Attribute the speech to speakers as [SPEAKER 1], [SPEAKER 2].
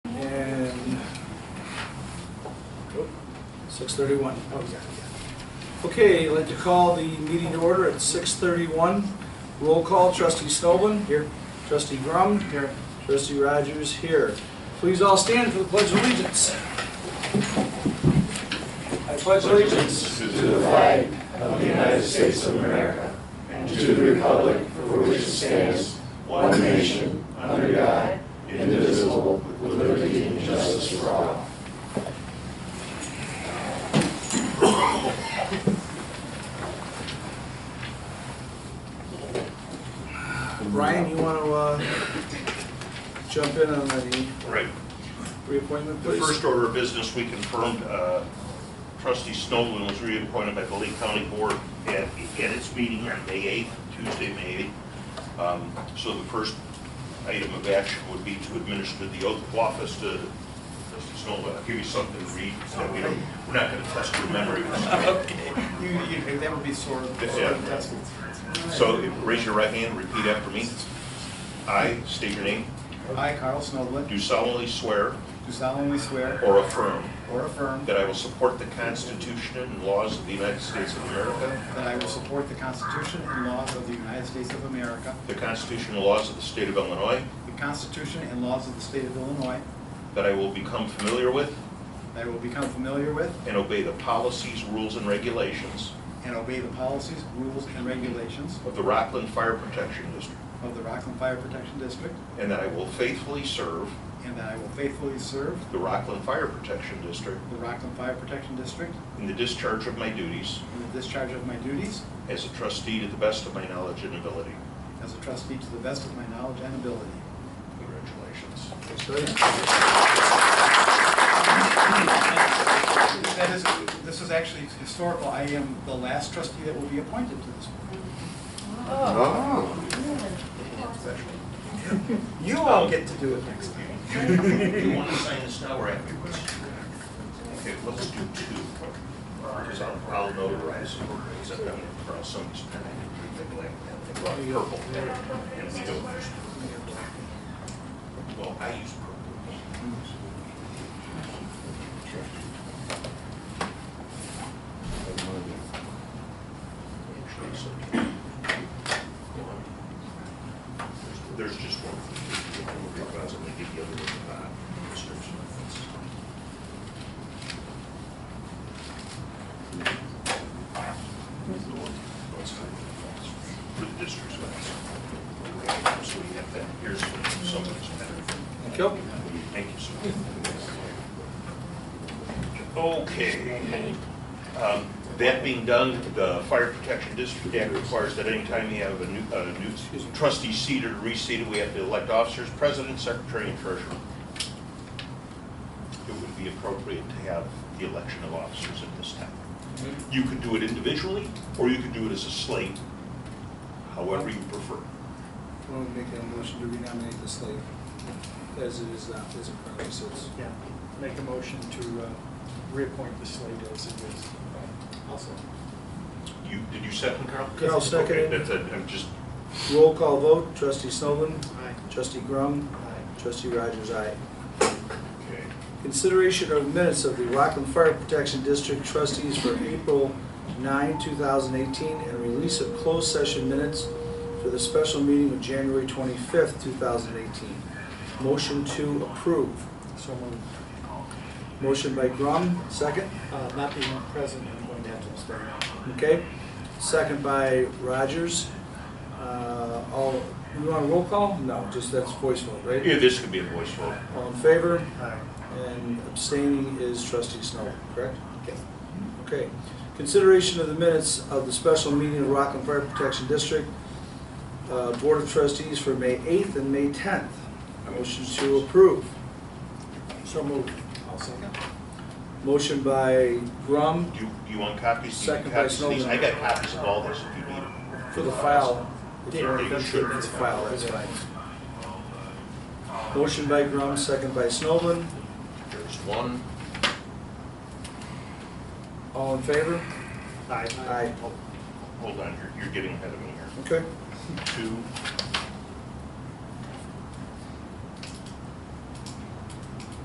[SPEAKER 1] oh, Six thirty-one. Oh, yeah, yeah. Okay, I'd like to call the meeting to order at six thirty-one. Roll call, trustee Snowman. Here. Trustee Grum. Here. Trustee Rogers, here. Please all stand for the pledge of allegiance. I pledge allegiance.
[SPEAKER 2] to the flag of the United States of America and to the republic for which it stands, one nation, under God, indivisible, with liberty and justice for all.
[SPEAKER 1] Brian, you want to, uh, jump in on the
[SPEAKER 3] Right.
[SPEAKER 1] reappointment,
[SPEAKER 3] The
[SPEAKER 1] please?
[SPEAKER 3] first order of business, we confirmed uh, trustee Snowden was reappointed by the Lake County Board at, at its meeting on May 8th, Tuesday, May 8th. Um, So the first item of action would be to administer the oath of office to trustee Snowden. I'll give you something to read, so that we don't, we're not going to test your memory.
[SPEAKER 4] You, you, that would be sort of,
[SPEAKER 3] Yeah.
[SPEAKER 4] sort of tested.
[SPEAKER 3] So raise your right hand, repeat after me. I state your name,
[SPEAKER 4] I, Carl Snowblin,
[SPEAKER 3] do solemnly swear
[SPEAKER 4] do solemnly swear
[SPEAKER 3] or affirm
[SPEAKER 4] or affirm
[SPEAKER 3] That I will support the Constitution and laws of the United States of America,
[SPEAKER 4] that I will support the Constitution and laws of the United States of America,
[SPEAKER 3] the Constitution and laws of the State of Illinois,
[SPEAKER 4] the Constitution and laws of the state of Illinois,
[SPEAKER 3] that I will become familiar with
[SPEAKER 4] that I will become familiar with
[SPEAKER 3] and obey the policies, rules, and regulations
[SPEAKER 4] and obey the policies, rules, and regulations
[SPEAKER 3] of the Rockland Fire Protection District,
[SPEAKER 4] of the Rockland Fire Protection District,
[SPEAKER 3] and that I will faithfully serve
[SPEAKER 4] and that I will faithfully serve
[SPEAKER 3] the Rockland Fire Protection District
[SPEAKER 4] the Rockland Fire Protection District
[SPEAKER 3] in the discharge of my duties
[SPEAKER 4] in the discharge of my duties
[SPEAKER 3] as a trustee to the best of my knowledge and ability.
[SPEAKER 4] as a trustee to the best of my knowledge and ability.
[SPEAKER 3] Congratulations.
[SPEAKER 4] That is, this is actually historical. I am the last trustee that will be appointed to this board.
[SPEAKER 5] Oh.
[SPEAKER 4] You all get to do it next time.
[SPEAKER 3] Do you want to sign this now or afterwards? Okay, let's do two, because I'll, I'll notarize it, except I'm gonna cross somebody's pen. Well, Purple. And we go first. Well, I use purple. There's just one. I'll give the other one, uh, description. For the district's last. So we have that, here's somebody's better.
[SPEAKER 1] Thank you.
[SPEAKER 3] Thank you, sir. Okay. Um, That being done, the Fire Protection District Act requires that anytime you have a new, a new trustee seated or reseated, we have to elect officers, president, secretary, and treasurer. It would be appropriate to have the election of officers at this time. You could do it individually, or you could do it as a slate, however you prefer.
[SPEAKER 1] Want to make a motion to renominate the slate as it is, uh, as it currently sits?
[SPEAKER 5] Yeah, make a motion to uh, reappoint the slate as it is. Also.
[SPEAKER 3] You, did you second, Carl?
[SPEAKER 1] Carl seconded.
[SPEAKER 3] Okay, That's, it. I'm just,
[SPEAKER 1] Roll call vote, trustee Snowman,
[SPEAKER 5] Aye.
[SPEAKER 1] trustee Grum,
[SPEAKER 5] Aye.
[SPEAKER 1] trustee Rogers, aye.
[SPEAKER 3] okay.
[SPEAKER 1] Consideration of minutes of the Rockland Fire Protection District trustees for April 9, 2018, and release of closed session minutes for the special meeting of January 25, 2018. Motion to approve.
[SPEAKER 5] So moved.
[SPEAKER 1] Motion by Grum, second,
[SPEAKER 5] Uh, Not being present, I'm going to have to abstain.
[SPEAKER 1] okay? Second by Rogers. Uh, All, you want a roll call? No, just that's voice vote, right?
[SPEAKER 3] Yeah, this could be a voice vote.
[SPEAKER 1] All in favor?
[SPEAKER 5] Aye.
[SPEAKER 1] And abstaining is trustee Snow, correct? Okay. Consideration of the minutes of the special meeting of Rockland Fire Protection District uh, Board of Trustees for May 8th and May 10th. Motion to approve.
[SPEAKER 5] So moved.
[SPEAKER 4] I'll second.
[SPEAKER 1] Motion by Grum
[SPEAKER 3] Do you, you want copies? Do you
[SPEAKER 1] Second
[SPEAKER 3] need
[SPEAKER 1] by
[SPEAKER 3] copies of these?
[SPEAKER 1] Snowden.
[SPEAKER 3] I got copies of all this if you need them.
[SPEAKER 1] for the file.
[SPEAKER 3] Yeah, you should.
[SPEAKER 1] For the file, that's fine. Motion by Grum, second by Snoblin.
[SPEAKER 3] There's one.
[SPEAKER 1] All in favor?
[SPEAKER 5] Aye.
[SPEAKER 1] Aye.
[SPEAKER 3] oh, Hold on, you're, you're getting ahead of me here.
[SPEAKER 1] Okay.
[SPEAKER 3] Two,